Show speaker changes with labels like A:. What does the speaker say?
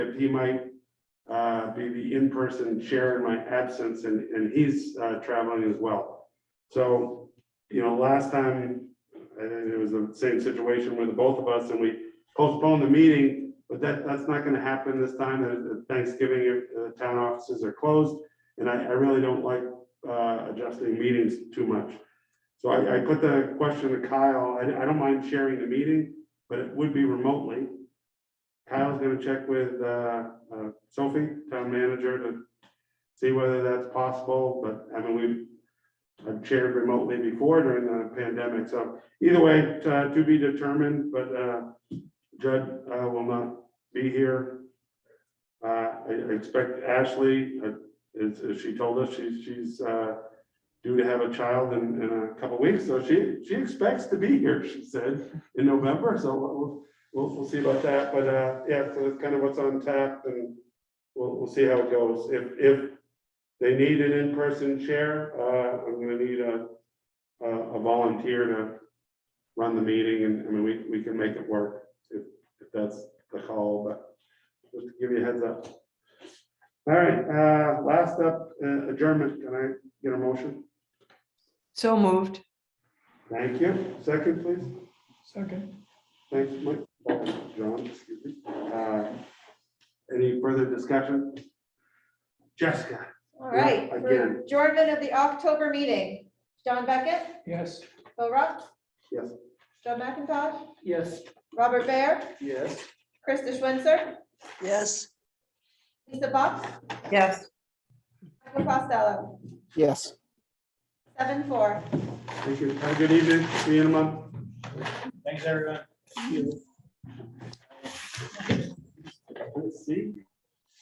A: if he might uh, be the in-person chair in my absence, and, and he's uh, traveling as well. So, you know, last time, I think it was the same situation with the both of us, and we postponed the meeting, but that, that's not gonna happen this time, Uh, Thanksgiving, uh, the town offices are closed, and I, I really don't like uh, adjusting meetings too much. So I, I put the question to Kyle, I, I don't mind sharing the meeting, but it would be remotely. Kyle's gonna check with, uh, uh, Sophie, town manager, to see whether that's possible, but I mean, we've I've chaired remotely before during the pandemic, so either way, uh, to be determined, but, uh, Judd, uh, will not be here. Uh, I, I expect Ashley, uh, as, as she told us, she's, she's, uh, due to have a child in, in a couple weeks, so she, she expects to be here, she said, in November, so we'll, we'll, we'll see about that, but, uh, yeah, so that's kind of what's on tap, and we'll, we'll see how it goes. If, if they need an in-person chair, uh, I'm gonna need a, a a volunteer to run the meeting, and, I mean, we, we can make it work, if, if that's the call, but just to give you a heads up. All right, uh, last up, uh, adjournment, can I get a motion?
B: So moved.
A: Thank you, second, please.
C: Second.
A: Thanks, Mike, Oh, John, excuse me. Uh, Any further discussion? Jessica,
D: All
A: Yeah,
D: right, for
A: again.
D: adjournment of the October meeting, John Beckett,
C: Yes.
D: Bill Rock,
A: yes,
D: Joe McIntosh,
C: Yes.
D: Robert Baer,
C: Yes.
D: Krista Switzer,
B: Yes.
D: Lisa Box,
B: Yes.
D: Michael Costello,
E: Yes.
D: seven four.
A: thank you, have a good evening, see you in a month.
C: Thanks, everyone.
A: Let's see.